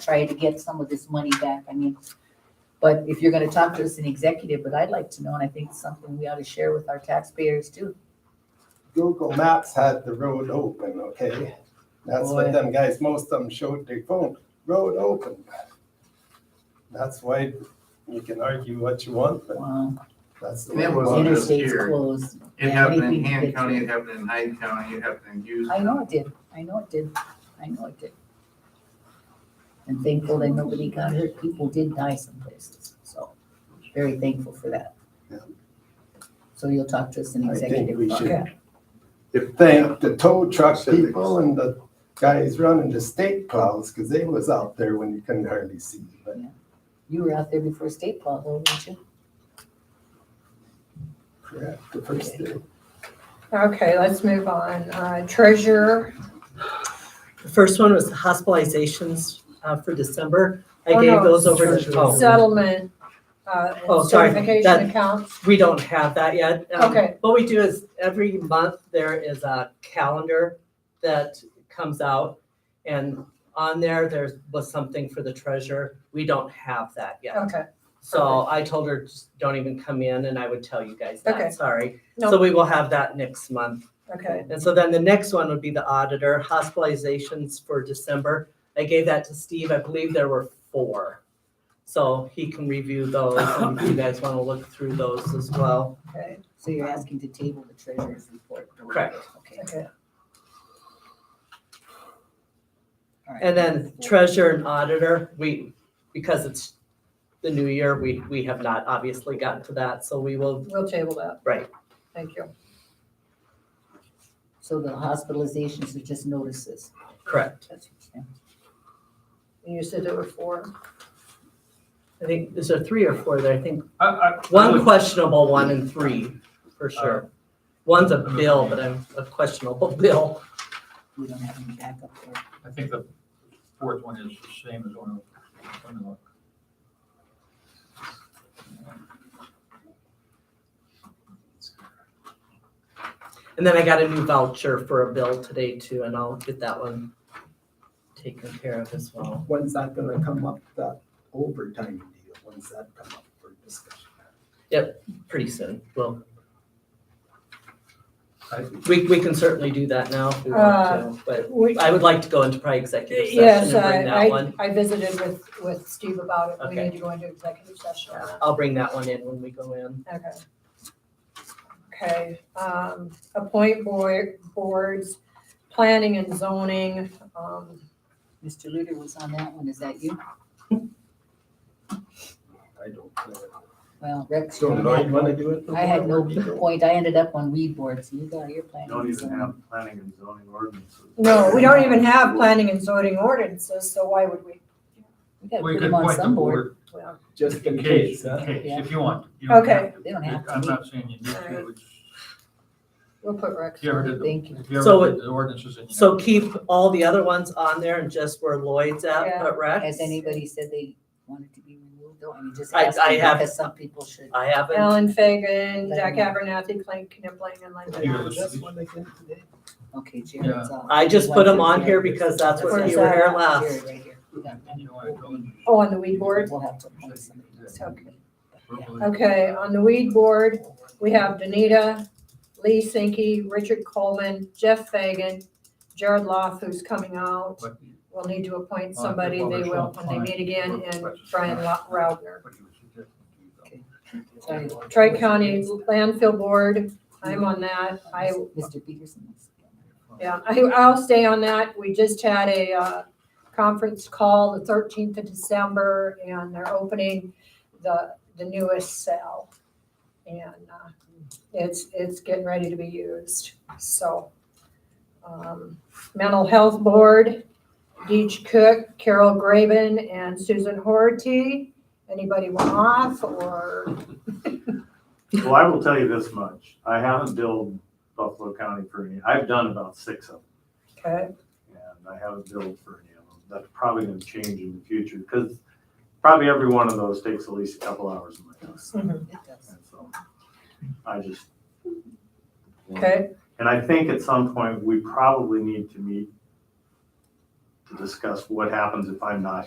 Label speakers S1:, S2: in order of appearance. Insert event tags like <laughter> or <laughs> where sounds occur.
S1: try to get some of this money back, I mean, but if you're gonna talk to us in executive, but I'd like to know, and I think it's something we ought to share with our taxpayers too.
S2: Google Maps had the road open, okay? That's
S1: Boy.
S2: what them guys, most of them showed their phone, road open. That's why you can argue what you want, but
S1: Wow,
S2: that's the way it
S3: That
S2: was.
S3: wasn't just
S1: interstate's
S3: here.
S1: Um, closed.
S3: It
S1: Yeah,
S3: happened in
S1: anything to
S3: Han
S1: get
S3: County,
S1: you.
S3: it happened in Hyde County, it happened in Houston.
S1: I know it did, I know it did, I know it did. And thankful that nobody got hurt, people did die some places, so very thankful for that.
S2: Yeah.
S1: So you'll talk to us in
S2: I think
S1: executive.
S2: we
S1: about
S2: should
S1: that.
S2: Thank the tow truck
S3: Civics.
S2: people and the guys running the state plows, because they was out there when you couldn't hardly see. But
S1: You were out there before state law, weren't you?
S2: yeah, the first day.
S4: Okay, let's move on. Uh, Treasurer,
S5: The first one was the hospitalizations uh, for December. I
S4: Oh,
S5: gave
S4: no.
S5: those over to, oh,
S4: settlement, uh,
S5: Oh,
S4: and
S5: sorry.
S4: certification
S5: That-
S4: accounts.
S5: we don't have that yet. Um,
S4: Okay.
S5: What we do is every month, there is a calendar that comes out. And on there, there was something for the treasurer. We don't have that yet.
S4: Okay,
S5: So I told her, just don't even come in and I would tell you guys
S4: Okay.
S5: that, sorry.
S4: No.
S5: So we will have that next month.
S4: okay.
S5: And so then the next one would be the auditor, hospitalizations for December. I gave that to Steve. I believe there were four. So he can review those and if you guys want to look through those as well.
S4: Okay.
S1: So you're asking to table the treasurer's report?
S5: Correct.
S1: Okay.
S4: Okay.
S1: all right.
S5: And then treasurer and auditor, we, because it's the new year, we, we have not obviously gotten to that. So we will,
S4: We'll table that.
S5: Right.
S4: Thank you.
S1: So the hospitalizations are just notices.
S5: correct.
S1: That's what
S4: And You said there were four.
S5: I think, is there three or four there? I think
S6: I, I, I
S5: one
S6: would-
S5: questionable one and three for sure. One's a
S6: I'm
S5: bill,
S6: okay.
S5: but I'm a questionable <laughs> bill.
S1: We don't have any backup there.
S6: I think the fourth one is the same as one of, one of
S5: And then I got a new voucher for a bill today too, and I'll get that one taken care of as well.
S2: When's that gonna come up, that overtime deal? When's that come up for discussion?
S5: Pretty soon, well,
S6: I-
S5: we, we can certainly do that now if we want to, but
S4: We-
S5: I would like to go into probably executive
S4: Uh, Yes,
S5: session and bring
S4: I,
S5: that
S4: I,
S5: one.
S4: I visited with, with Steve about it. We
S5: Okay.
S4: need to go into executive session.
S5: I'll bring that one in when we go in.
S4: Okay. Okay, um, appoint board, boards, planning and zoning, um,
S1: Mr. Luter was on that one, is that you?
S2: I don't know.
S1: Well, Rex.
S2: So
S1: you
S2: now
S1: had
S2: you
S1: no-
S2: wanna do it?
S1: I had no
S2: before we're-
S1: point, I ended up on weed board, so you got your plan.
S3: Don't even have planning and zoning ordinances.
S4: no, we don't even have planning and zoning ordinances, so why would we?
S1: We gotta
S6: We
S1: put
S6: could
S1: them on
S6: point the
S1: some board,
S6: board
S2: Just
S6: in
S1: <laughs>
S2: in
S6: case,
S2: case,
S6: in
S2: huh?
S6: case,
S1: Yeah.
S6: if you want. You don't
S4: Okay.
S6: have to.
S1: they don't have
S6: I'm
S1: to.
S6: not saying you need to, it's,
S4: We'll put Rex.
S6: if you ever did, the-
S1: Thank you.
S6: if you
S5: So
S6: ever did the ordinances and you.
S5: So keep all the other ones on there and just where Lloyd's at,
S4: Yeah.
S5: but Rex,
S1: Has anybody said they wanted to be removed, though? I mean, just
S5: I-
S1: ask
S5: I
S1: them,
S5: have-
S1: because some people should.
S5: I haven't.
S4: Alan Fagan, Jack Abernathy, Clint Knipling, and Linda.
S6: Yeah.
S4: Knox.
S2: That's what I did today.
S1: Okay, Jared's off.
S5: I just put them on here because that's
S4: Where
S5: what
S4: is
S5: you were
S4: that
S5: here
S4: at?
S5: last.
S1: Jared right here. We got
S6: And
S1: that.
S6: you know, I told you.
S4: Oh, on the weed board?
S1: We'll have to appoint somebody else.
S4: Okay.
S1: Yeah.
S4: Okay, on the weed board, we have Danita, Lee Sinke, Richard Coleman, Jeff Fagan, Jared Loff, who's coming out.
S6: But-
S4: We'll need to appoint
S6: Well,
S4: somebody,
S6: well,
S4: they
S6: there's
S4: will,
S6: no
S4: when they meet again,
S6: point.
S4: and Brian Lo- Roudner.
S6: but you were suggesting to do
S1: Sorry.
S6: that.
S4: Tri County Landfill Board, I'm on that, I,
S1: Mr. Peterson.
S4: yeah, I, uh, I'll stay on that, we just had a, uh, conference call the thirteenth of December, and they're opening the, the newest cell. And, uh, it's, it's getting ready to be used, so. um, Mental Health Board, Deej Cook, Carol Graven, and Susan Horty. Anybody want off, or,
S7: Well, I will tell you this much. I haven't billed Buffalo County for any, I've done about six of
S4: okay,
S7: them, and I haven't billed for any of them. That's probably gonna change in the future, because probably every one of those takes at least a couple hours of my time. And so, I just.
S4: okay?
S7: And I think at some point, we probably need to meet to discuss what happens if I'm not